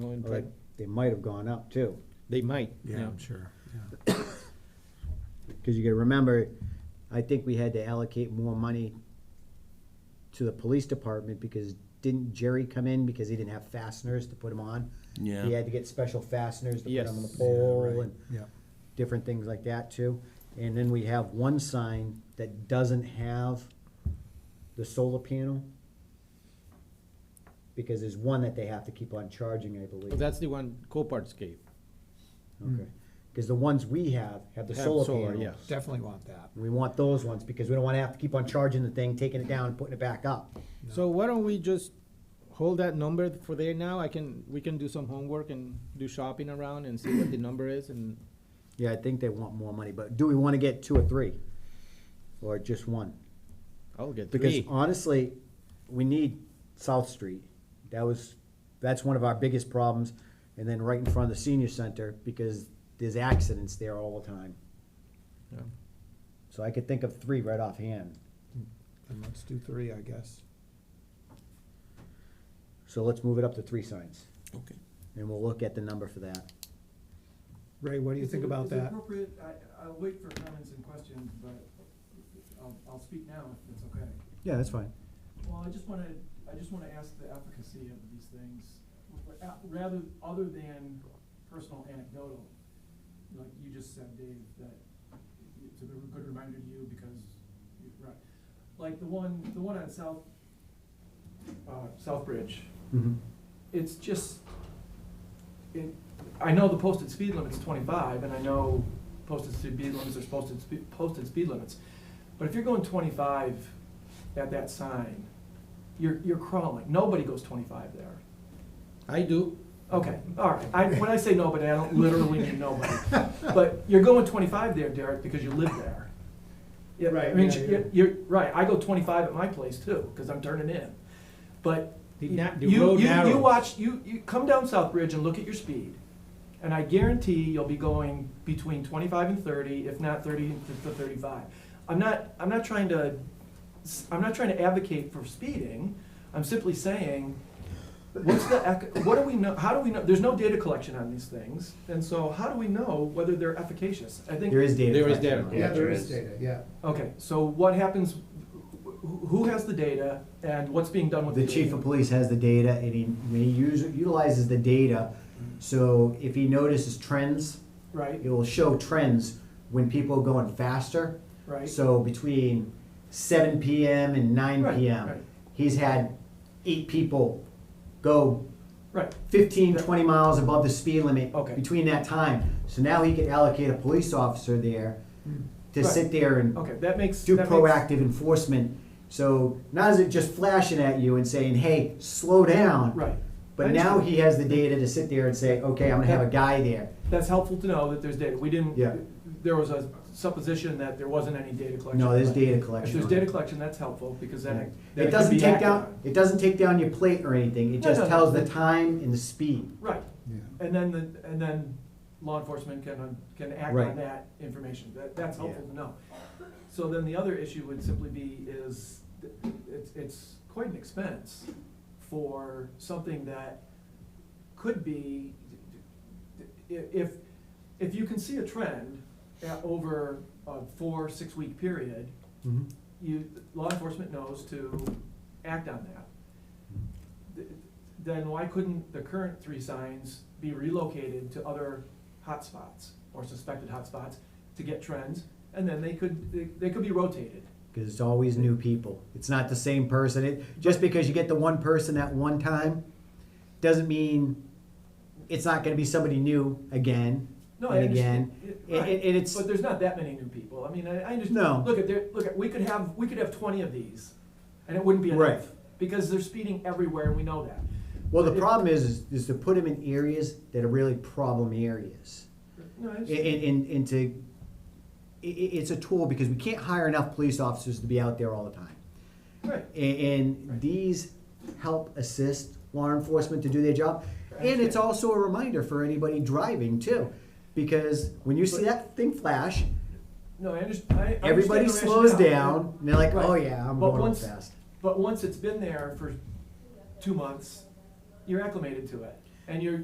Going Or to- They might have gone up too, They might, Yeah, yeah. I'm sure, yeah. because you gotta remember, I think we had to allocate more money to the police department because didn't Jerry come in because he didn't have fasteners to put them on? He had to get special fasteners to put them on the Yes. Yeah, pole right, and Yeah, different things like that too. And then we have one sign that doesn't have the solar panel. Because there's one that they have to keep on charging, I believe. Well, That's the one Copart's gave. Okay, because the ones we have have the Have solar solar, panels. yes. definitely want that. We want those ones because we don't wanna have to keep on charging the thing, taking it down, and putting it back up. So why don't we just hold that number for there now? I can, we can do some homework and do shopping around and see what the number is and Yeah, I think they want more money, but do we wanna get two or three? Or just one? I'll get Because three. honestly, we need South Street. That was, that's one of our biggest problems. And then right in front of the senior center, because there's accidents there all the time. Yeah. So I could think of three right offhand. And let's do three, I guess. So let's move it up to three signs, Okay. and we'll look at the number for that. Ray, what do you Is think it- about is it that? appropriate, I, I'll wait for comments and questions, but I'll, I'll speak now if it's okay. Yeah, that's fine. Well, I just wanna, I just wanna ask the efficacy of these things, ra- rather, other than personal anecdotal. Like you just said, Dave, that it's a good reminder to you because, you- right, like the one, the one on South, uh, Southbridge, Mhm. it's just, it, I know the posted speed limit's twenty-five, and I know posted speed limits are posted speed, posted speed limits. But if you're going twenty-five at that sign, you're, you're crawling, nobody goes twenty-five there. I do. Okay, all right, I, when I say nobody, I don't literally mean nobody, but you're going twenty-five there, Derek, because you live there. Yeah, I Right, mean, yeah, you're, you're, right, I go twenty-five at my place too, cause I'm turning in, but The na- the you, road you, you narrows. watch, you, you come down South Bridge and look at your speed, and I guarantee you'll be going between twenty-five and thirty, if not thirty to to thirty-five. I'm not, I'm not trying to, I'm not trying to advocate for speeding, I'm simply saying, what's the, ec- what do we know, how do we know, there's no data collection on these things, and so how do we know whether they're efficacious? I think, There is data. There is collection data. on it. Yeah, there is data, yeah. okay, so what happens, who, who has the data, and what's being done with the The data? chief of police has the data and he, when he use- utilizes the data, so if he notices trends, Right, it will show trends when people are going faster. right. So between seven PM and nine Right, PM, right. he's had eight people go Right, 15, 20 miles above the speed limit. Okay. Between that time, so now he could allocate a police officer there to Hmm. Right. sit there and okay, that makes. do that makes- proactive enforcement. So not is it just flashing at you and saying, "Hey, slow down." Right, But now he has the data to sit there and say, "Okay, I'm gonna have a guy there." that's helpful to know that there's data, we didn't. Yeah. There was a supposition that there wasn't any data collection. No, there's But data If collection. there's on it. data collection, that's helpful, because then it. then It can doesn't be take acted down. on. It doesn't take down your plate or anything. It No, just no, no. tells the time and the speed. Right, Yeah. and then, the and then law enforcement can, uh, can act Right. on that information, that, that's helpful Yeah. to know. So then the other issue would simply be is, th- it's, it's quite an expense for something that could be, i- if, if you can see a trend at, over a four, six-week period, Mm-hmm. you, law enforcement knows to act on that. Th- Then why couldn't the current three signs be relocated to other hotspots or suspected hotspots to get trends? And then they could, they- they could be rotated. Because it's always new people. It's not the same person. It, just because you get the one person at one time, doesn't mean it's not going to be somebody new again No, I and understand. again. Yeah, And- right. and it's- But there's not that many new people. I mean, I, I understand. No. Look at there, look at, we could have, we could have twenty of these and it wouldn't be Right. enough. Because they're speeding everywhere and we know that. Well, the It- problem is, is, is to put them in areas that are really problem areas. No, I And, understand. and, and to, i- i it's a tool because we can't hire enough police officers to be out there all the time. Right. And, and Right. these help assist law enforcement to do their job. And it's Right. also a reminder for anybody driving too, because when you see that thing flash, No, I understand. I understand everybody the slows rationale. down, and they're like, Right. oh yeah, I'm But going real once- fast. But once it's been there for two months, you're acclimated to it. And you're,